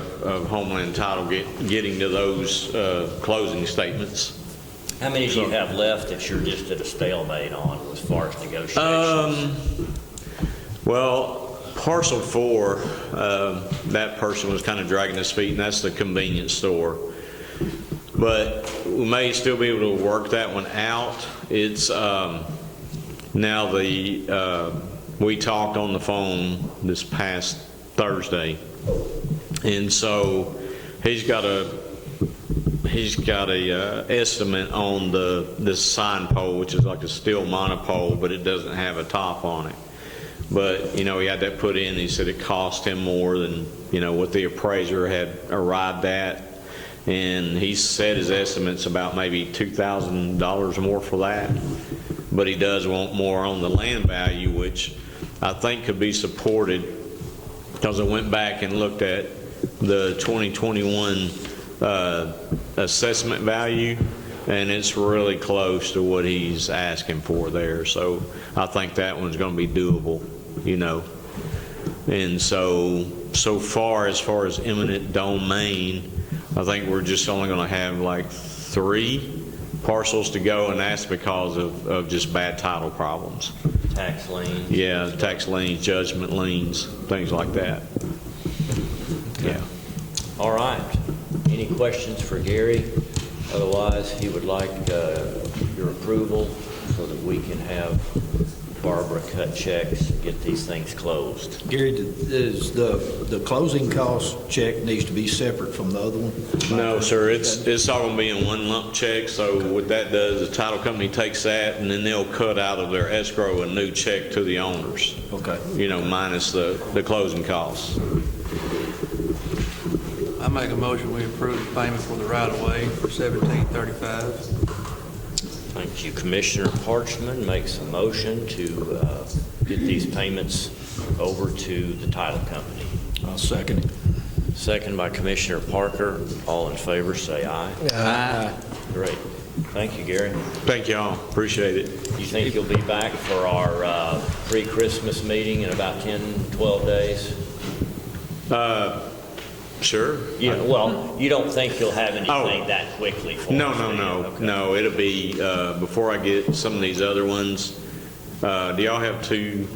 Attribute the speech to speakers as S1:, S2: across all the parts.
S1: of Homeland and Title get- getting to those uh, closing statements.
S2: How many do you have left that you're just at a stalemate on as far as negotiations?
S1: Um, well, parcel four, um, that person was kind of dragging his feet, and that's the convenience store. But we may still be able to work that one out. It's, um, now the, uh, we talked on the phone this past Thursday. And so he's got a, he's got a uh, estimate on the, this sign pole, which is like a steel monopole, but it doesn't have a top on it. But, you know, he had that put in, he said it cost him more than, you know, what the appraiser had arrived at. And he said his estimate's about maybe $2,000 more for that. But he does want more on the land value, which I think could be supported because I went back and looked at the 2021 uh, assessment value, and it's really close to what he's asking for there. So I think that one's going to be doable, you know. And so, so far, as far as eminent domain, I think we're just only going to have like three parcels to go, and that's because of, of just bad title problems.
S2: Tax lien?
S1: Yeah, tax liens, judgment liens, things like that. Yeah.
S2: All right. Any questions for Gary? Otherwise, he would like uh, your approval so that we can have Barbara cut checks and get these things closed.
S3: Gary, is the, the closing cost check needs to be separate from the other one?
S1: No, sir, it's, it's all gonna be in one lump check, so what that does, the title company takes that, and then they'll cut out of their escrow a new check to the owners,
S3: Okay.
S1: you know, minus the, the closing costs.
S4: I make a motion, we approve the payment for the right-of-way for seventeen thirty-five.
S2: Thank you. Commissioner Parchman makes a motion to uh, get these payments over to the title company.
S3: I'll second it.
S2: Second by Commissioner Parker. All in favor, say aye. Great. Thank you, Gary.
S1: Thank y'all, appreciate it.
S2: You think you'll be back for our uh, pre-Christmas meeting in about 10, 12 days?
S1: Uh, Sure?
S2: Yeah, well, you don't think you'll have
S1: Oh.
S2: anything that quickly for us?
S1: No,
S2: do
S1: no,
S2: you?
S1: no,
S2: Okay.
S1: no, it'll be, uh, before I get some of these other ones, uh, do y'all have two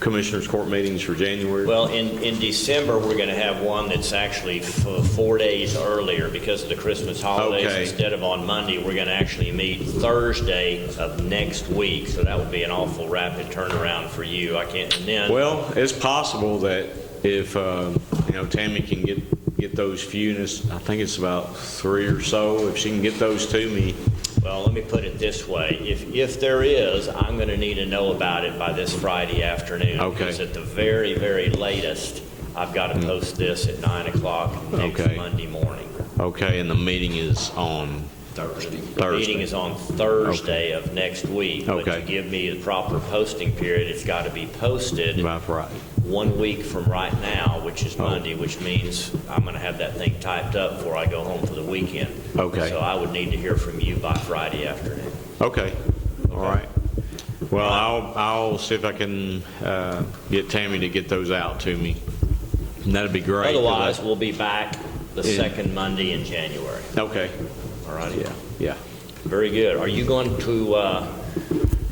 S1: commissioners' court meetings for January?
S2: Well, in, in December, we're going to have one that's actually f- four days earlier because of the Christmas holidays.
S1: Okay.
S2: Instead of on Monday, we're going to actually meet Thursday of next week, so that would be an awful rapid turnaround for you. I can't, and then...
S1: Well, it's possible that if, uh, you know, Tammy can get, get those few, and it's- I think it's about three or so, if she can get those to me,
S2: Well, let me put it this way. If, if there is, I'm going to need to know about it by this Friday afternoon.
S1: Okay. Mm-hmm.
S2: Because at the very, very latest, I've got to post this at 9 o'clock next
S1: Okay.
S2: Monday morning.
S1: okay, and the meeting is on,
S2: Thursday. The
S1: Thursday.
S2: meeting is on Thursday of next week. But
S1: Okay.
S2: to give me the proper posting period, it's got to be posted
S1: by Friday.
S2: one week from right now, which is
S1: Oh.
S2: Monday, which means I'm going to have that thing typed up before I go home for the weekend.
S1: Okay.
S2: So I would need to hear from you by Friday afternoon.
S1: Okay, all right. Well, I'll, I'll see if I can uh, get Tammy to get those out to me. And that'd be great. 'cause I-
S2: Otherwise, we'll be back the
S1: Yeah.
S2: second Monday in January.
S1: Okay,
S2: All right?
S1: yeah, yeah.
S2: Very good. Are you going to, uh,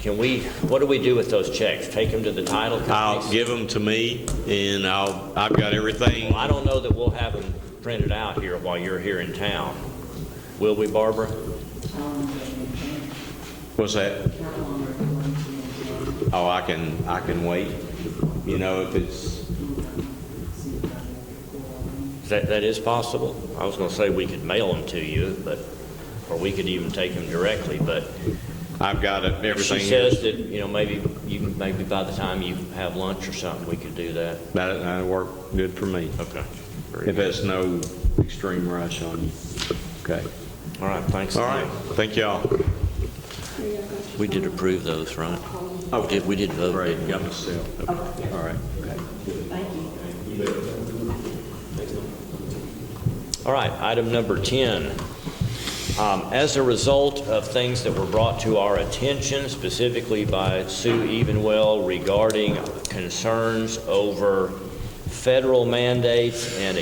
S2: can we, what do we do with those checks? Take them to the title
S1: I'll
S2: companies?
S1: give them to me, and I'll, I've got everything.
S2: Well, I don't know that we'll have them printed out here while you're here in town. Will we, Barbara?
S1: What's that? Oh, I can, I can wait. You know, if it's,
S2: Is That, that is possible. I was going to say we could mail them to you, but, or we could even take them directly, but
S1: I've got it,
S2: if she
S1: everything.
S2: says that, you know, maybe, you, maybe by the time you have lunch or something, we could do that.
S1: That, that'll work good for me,
S2: Okay.
S1: if there's no extreme rush on you. Okay.
S2: All right, thanks.
S1: All right, thank y'all.
S2: We did approve those, right?
S1: Oh,
S2: Did- We did vote,
S1: Great,
S2: didn't we?
S1: got myself. Okay, All right.
S2: All right, item number 10. Um, As a result of things that were brought to our attention specifically by Sue Evenwell regarding concerns over federal mandates and